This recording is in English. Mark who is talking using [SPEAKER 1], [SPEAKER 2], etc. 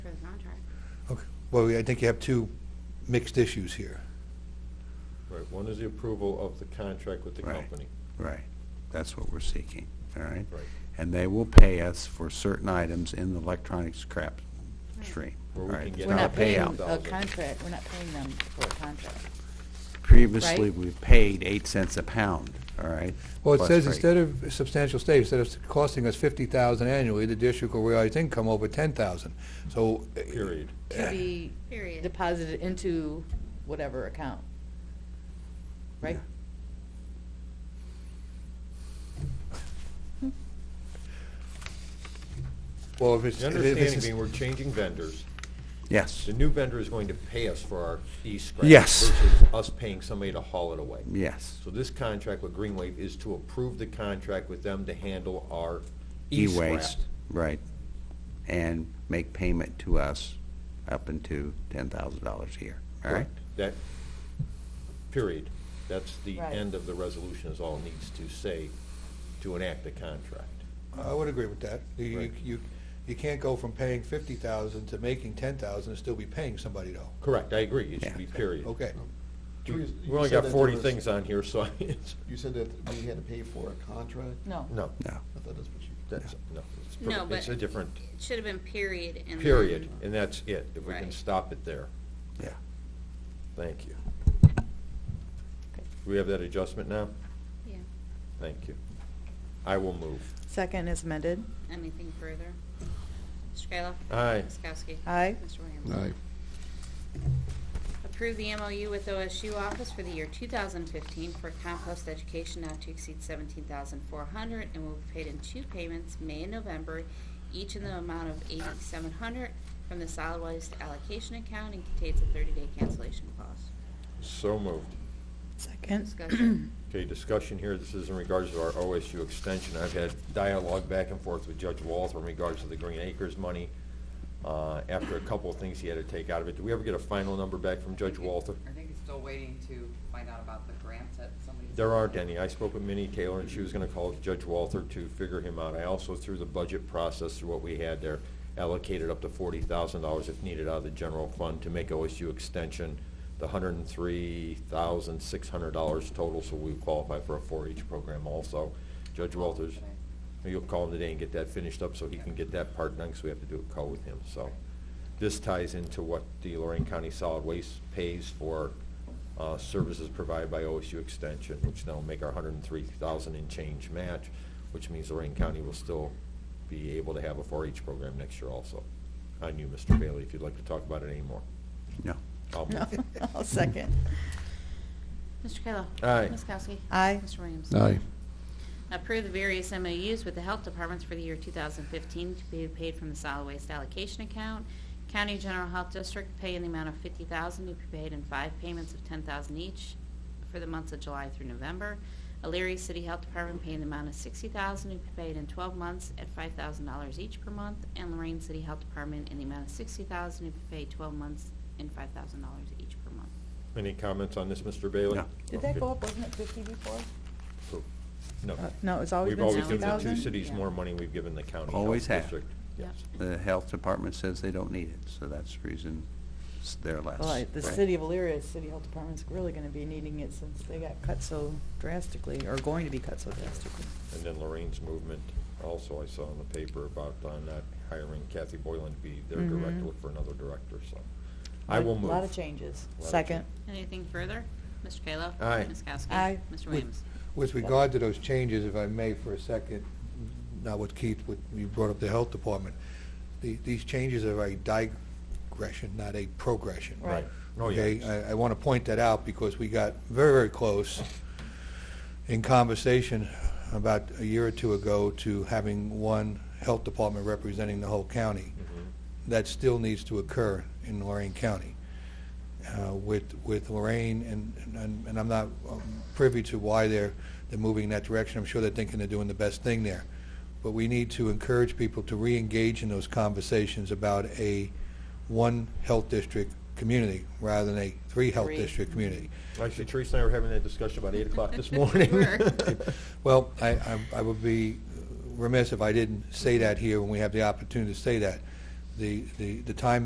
[SPEAKER 1] contract.
[SPEAKER 2] Okay, well, I think you have two mixed issues here.
[SPEAKER 3] Right, one is the approval of the contract with the
[SPEAKER 4] Right.
[SPEAKER 3] company.
[SPEAKER 4] Right, that's what we're seeking, all right?
[SPEAKER 3] Right.
[SPEAKER 4] And they will pay us for certain items in the electronic scrap stream, all
[SPEAKER 3] Where we
[SPEAKER 4] right?
[SPEAKER 3] can
[SPEAKER 4] It's
[SPEAKER 3] get
[SPEAKER 5] We're
[SPEAKER 3] Yeah.
[SPEAKER 5] not
[SPEAKER 4] a
[SPEAKER 5] paying
[SPEAKER 4] payout.
[SPEAKER 5] a contract, we're not paying them for a contract.
[SPEAKER 4] Previously,
[SPEAKER 5] right?
[SPEAKER 4] we paid eight cents a pound, all right?
[SPEAKER 2] Well, it
[SPEAKER 4] plus
[SPEAKER 2] says
[SPEAKER 4] freight.
[SPEAKER 2] instead of substantial state, instead of costing us fifty thousand annually, the district will realize income over ten thousand, so. uh,
[SPEAKER 3] Period.
[SPEAKER 5] To be
[SPEAKER 1] Period.
[SPEAKER 5] deposited into whatever account. Right?
[SPEAKER 2] Well, if it's.
[SPEAKER 3] The
[SPEAKER 2] if
[SPEAKER 3] understanding
[SPEAKER 2] it's-
[SPEAKER 3] being we're changing vendors.
[SPEAKER 4] Yes,
[SPEAKER 3] The new vendor is going to pay us for our e-scrap.
[SPEAKER 4] Yes.
[SPEAKER 3] Versus us paying somebody to haul it away.
[SPEAKER 4] yes,
[SPEAKER 3] So this contract with Greenwave is to approve the contract with them to handle our e-scrap.
[SPEAKER 4] e-waste, right, and make payment to us up into ten thousand dollars a year, all right?
[SPEAKER 3] Correct. That, period. That's the
[SPEAKER 5] Right.
[SPEAKER 3] end of the resolution is all it needs to say to enact the contract.
[SPEAKER 2] I would agree with that. You- You,
[SPEAKER 3] Right.
[SPEAKER 2] you, you can't go from paying fifty thousand to making ten thousand and still be paying somebody though.
[SPEAKER 3] Correct, I agree, it
[SPEAKER 4] Yeah.
[SPEAKER 3] should be period.
[SPEAKER 2] Okay,
[SPEAKER 3] We
[SPEAKER 6] You- you
[SPEAKER 3] we only
[SPEAKER 6] said
[SPEAKER 3] got
[SPEAKER 6] that there
[SPEAKER 3] forty
[SPEAKER 6] was-
[SPEAKER 3] things on here, so I- it's,
[SPEAKER 6] You said that we had to pay for a contract?
[SPEAKER 5] No.
[SPEAKER 3] no,
[SPEAKER 4] No,
[SPEAKER 6] I thought that's what you.
[SPEAKER 3] that's, no. it's per-
[SPEAKER 1] No,
[SPEAKER 3] It's
[SPEAKER 1] but-
[SPEAKER 3] a different
[SPEAKER 1] It should have been period and.
[SPEAKER 3] period,
[SPEAKER 1] then-
[SPEAKER 3] and that's it. If we can
[SPEAKER 1] Right.
[SPEAKER 3] stop it there,
[SPEAKER 4] yeah.
[SPEAKER 3] thank you. Do we have that adjustment now?
[SPEAKER 1] Yeah,
[SPEAKER 3] Thank you. I will move.
[SPEAKER 5] Second is amended.
[SPEAKER 1] anything further? Mr. Kayla?
[SPEAKER 3] Aye.
[SPEAKER 1] Ms. Kowski?
[SPEAKER 5] Aye.
[SPEAKER 1] Mr. Williams? Approve the MOU with OSU Office for the year 2015 for compost education not to exceed 17400 and will be paid in two payments, May and November, each in the amount of 8700 from the solid waste allocation account and contains a 30-day cancellation clause.
[SPEAKER 3] So moved.
[SPEAKER 5] Second.
[SPEAKER 1] Discussion.
[SPEAKER 3] Okay, discussion here, this is in regards to our OSU extension. I've had dialogue back and forth with Judge Walter in regards to the Green Acres money. Uh, After a couple of things he had to take out of it, do we ever get a final number back from Judge Walter?
[SPEAKER 7] I think he's still waiting to find out about the grants that somebody.
[SPEAKER 3] There aren't any. I spoke with Minnie Taylor, and she was going to call Judge Walther to figure him out. I also, through the budget process, through what we had there, allocated up to forty thousand dollars if needed out of the general fund to make OSU extension the hundred and three thousand, six hundred dollars total, so we qualify for a four-H program also. Judge Walters, you'll call him today and get that finished up so he can get that part done, because we have to do a call with him, so. This ties into what the Lorraine County Solid Waste pays for uh, services provided by OSU Extension, which now make our hundred and three thousand in change match, which means Lorraine County will still be able to have a four-H program next year also. On you, Mr. Bailey, if you'd like to talk about it anymore.
[SPEAKER 4] No,
[SPEAKER 3] I'll move.
[SPEAKER 5] I'll second.
[SPEAKER 1] Mr. Kayla?
[SPEAKER 3] Aye.
[SPEAKER 1] Ms. Kowski?
[SPEAKER 5] Aye.
[SPEAKER 1] Mr. Williams?
[SPEAKER 6] Aye.
[SPEAKER 1] Approve the various MOUs with the health departments for the year 2015 to be paid from the solid waste allocation account. County General Health District pay in the amount of 50000 to be paid in five payments of 10000 each for the months of July through November. Elyria City Health Department pay in the amount of 60000 to be paid in 12 months at $5,000 each per month. And Lorraine City Health Department in the amount of 60000 to be paid 12 months and $5,000 each per month.
[SPEAKER 3] Any comments on this, Mr. Bailey?
[SPEAKER 4] No.
[SPEAKER 5] Did that go up, wasn't it fifty before?
[SPEAKER 3] Cool. No.
[SPEAKER 5] Uh, No, it's always been
[SPEAKER 3] We've always
[SPEAKER 5] sixty
[SPEAKER 3] given the
[SPEAKER 5] thousand?
[SPEAKER 3] two cities
[SPEAKER 1] Yeah.
[SPEAKER 3] more money we've given the county. health
[SPEAKER 4] Always have.
[SPEAKER 3] district.
[SPEAKER 1] Yep.
[SPEAKER 3] Yes.
[SPEAKER 4] the health department says they don't need it, so that's the reason it's- they're less.
[SPEAKER 5] Well, the
[SPEAKER 4] right?
[SPEAKER 5] city of Elyria, city health department's really gonna be needing it since they got cut so drastically, or going to be cut so drastically.
[SPEAKER 3] And then Lorraine's movement, also I saw in the paper about uh, not hiring Kathy Boylan to be their director,
[SPEAKER 5] Mhm.
[SPEAKER 3] look for another director, so. I will move.
[SPEAKER 5] A lot of changes.
[SPEAKER 3] Lot of
[SPEAKER 5] Second.
[SPEAKER 1] Anything further? Mr. Kayla?
[SPEAKER 3] Aye.
[SPEAKER 1] Ms. Kowski?
[SPEAKER 5] Aye.
[SPEAKER 1] Mr. Williams?
[SPEAKER 2] with regard to those changes, if I may for a second, not with Keith, what you brought up the health department, the, these changes are a digression, not a progression.
[SPEAKER 3] Right. Oh,
[SPEAKER 2] Okay,
[SPEAKER 3] yeah.
[SPEAKER 2] I, I want to point that out because we got very, very close in conversation about a year or two ago to having one health department representing the whole county.
[SPEAKER 3] Mm-hmm.
[SPEAKER 2] That still needs to occur in Lorraine County. Uh, With, with Lorraine, and, and and I'm not um, privy to why they're, they're moving in that direction. I'm sure they're thinking they're doing the best thing there. But we need to encourage people to re-engage in those conversations about a one health district community rather than a three health
[SPEAKER 5] Three.
[SPEAKER 2] district community.
[SPEAKER 3] Actually, Teresa and I were having that discussion about eight o'clock this morning.
[SPEAKER 1] We were.
[SPEAKER 2] Well, I, I- I would be remiss if I didn't say that here when we have the opportunity to say that. The, the, the time